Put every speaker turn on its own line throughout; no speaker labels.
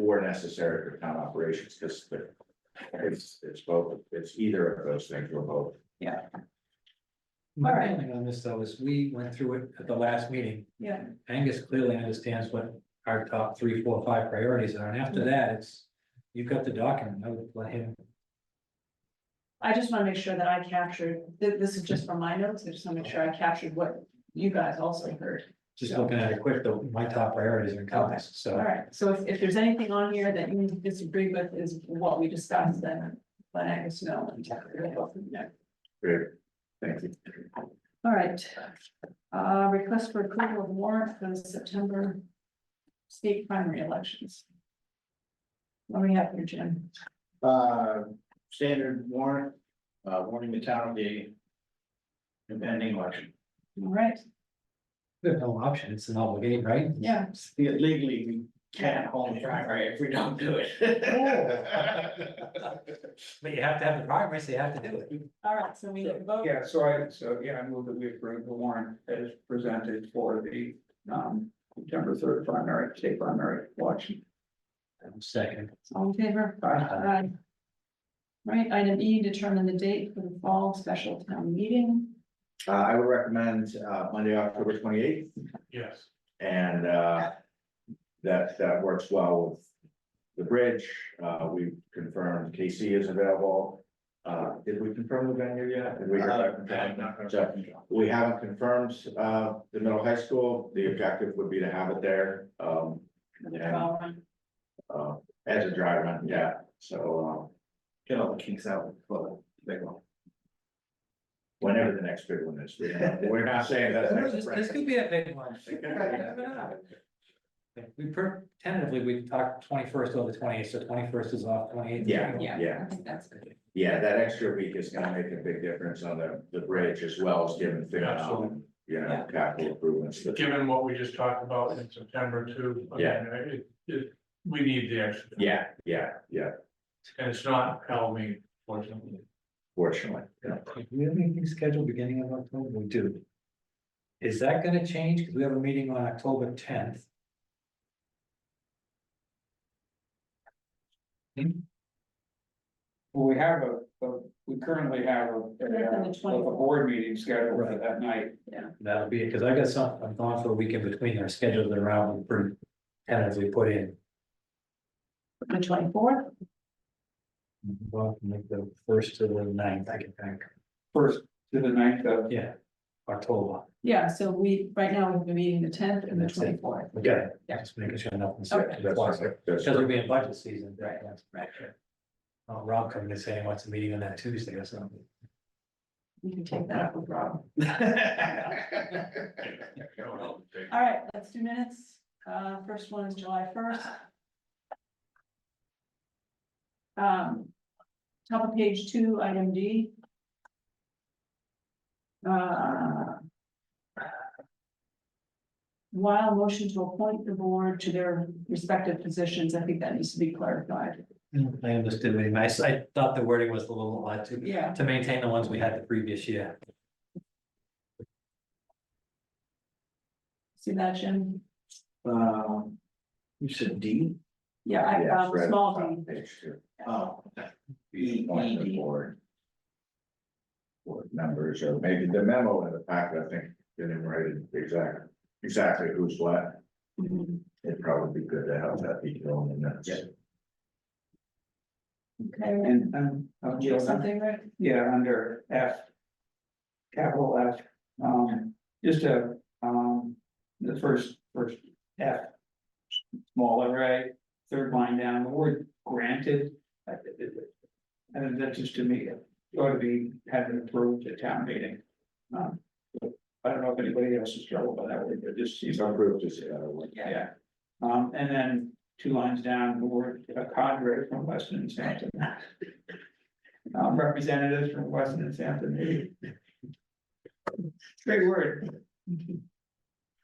or necessary for town operations, because the. It's, it's both, it's either of those things or both.
My
Alright.
feeling on this though is we went through it at the last meeting.
Yeah.
Angus clearly understands what our top three, four, five priorities are, and
Mm-hmm.
after that, it's, you've got the document, I would let him.
I just wanna make sure that I captured, th- this is just from my notes, I just wanna make sure I captured what you guys also heard.
Just looking at it quick, though, my top priorities are encompassed, so.
Alright, so if, if there's anything on here that you disagree with is what we discussed, then let Angus know. and we'll go from there.
Great, thank you.
Alright, uh, request for approval of warrant for the September state primary elections. What do we have here, Jim?
Uh, standard warrant, uh, warning the town of the impending election.
Alright,
There's no option, it's an obligation, right?
yeah,
Legally, we can't hold a primary if we don't do it.
But you have to have the progress, you have to do it.
alright, so we vote,
Yeah, so I, so, yeah, I move that we approve the warrant as presented for the, um, September third primary, state primary election.
Second.
all in favor? Aye. Right, item E, determine the date for the fall special town meeting.
Uh, I would recommend, uh, Monday, October twenty eighth,
Yes.
and, uh. That, that works well with the bridge, uh, we confirmed KC is available. Uh, did we confirm the venue yet? Did we hear that from John? So, We haven't confirmed, uh, the middle high school, the objective would be to have it there, um, Yeah. uh, as a dry run, yeah, so, um.
Get all the kinks out, but big one.
Whenever the next big one is, we don't- we're not saying that.
This, this could be a big one. We per, tentatively, we talked twenty-first over twenty-eighth, so twenty-first is off, twenty-eighth.
Yeah,
Yeah,
yeah.
I think that's good.
Yeah, that extra week is gonna make a big difference on the, the bridge as well as giving things out,
Absolutely.
you know, capital improvements. but-
given what we just talked about in September too. I mean, It, it, we need the extra.
Yeah, yeah, yeah,
And it's not Halloween, fortunately.
fortunately, yeah.
Do we have anything scheduled beginning of October? We do. Is that gonna change? Because we have a meeting on October tenth.
Well, we have a, a- we currently have a,
Yeah,
a,
the
a
24th.
board meeting scheduled for
Right.
that night.
That'll be it, because I got some, I'm gone for a week in between our schedules and around and pretty tentatively put in.
The twenty-fourth,
Well, make the first to the ninth, I can think,
First to the ninth of,
yeah, October.
yeah, so we, right now, we've been meeting the tenth and the
That's it.
twenty-fourth.
Okay. Just making sure nothing's.
That's-
Twice.
that's-
Because we'll be in budget season.
Right, right.
Uh, Rob coming and saying what's the meeting on that Tuesday or something.
You can take that up with Rob. All right, let's do minutes. Uh, first one is July first. Um, top of page two, item D. Uh, While motion to appoint the board to their respective positions, I think that needs to be clarified.
Mm, I understood, what he meant. I s- I thought the wording was a little odd to,
Yeah.
to maintain the ones we had the previous year.
See that, Jim?
Um, you said D?
Yeah, I,
Yeah,
um,
it's right
small
at the top
D.
of page two.
Oh,
The appointment of board. Board members, or maybe the memo in the packet, I think, didn't write it exactly, exactly who's what.
Mhm.
It'd probably be good to have that detail in the minutes.
Yeah.
Okay,
and, um, uh,
Do you have something, Rick?
Yeah, under F. Capital F, um, just a, um, the first, first F. Small array, third line down, the word granted. I- I- I- And that just to me, ought to be, had been approved at town meeting. Um, I don't know if anybody else is troubled by that word, but it just seems
It's approved as, uh, what-
yeah. Um, and then two lines down, the word uh, cadre from Weston and Sampson. Um, representatives from Weston and Sampson. Great word.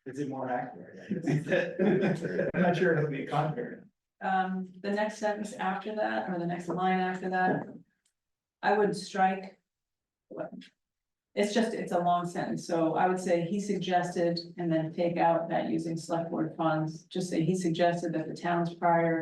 Is it more accurate? I'm not sure it'll be a cadre.
um, the next sentence after that, or the next line after that. I would strike. what- It's just, it's a long sentence, so I would say he suggested, and then take out that using select board funds, just say he suggested that the town's prior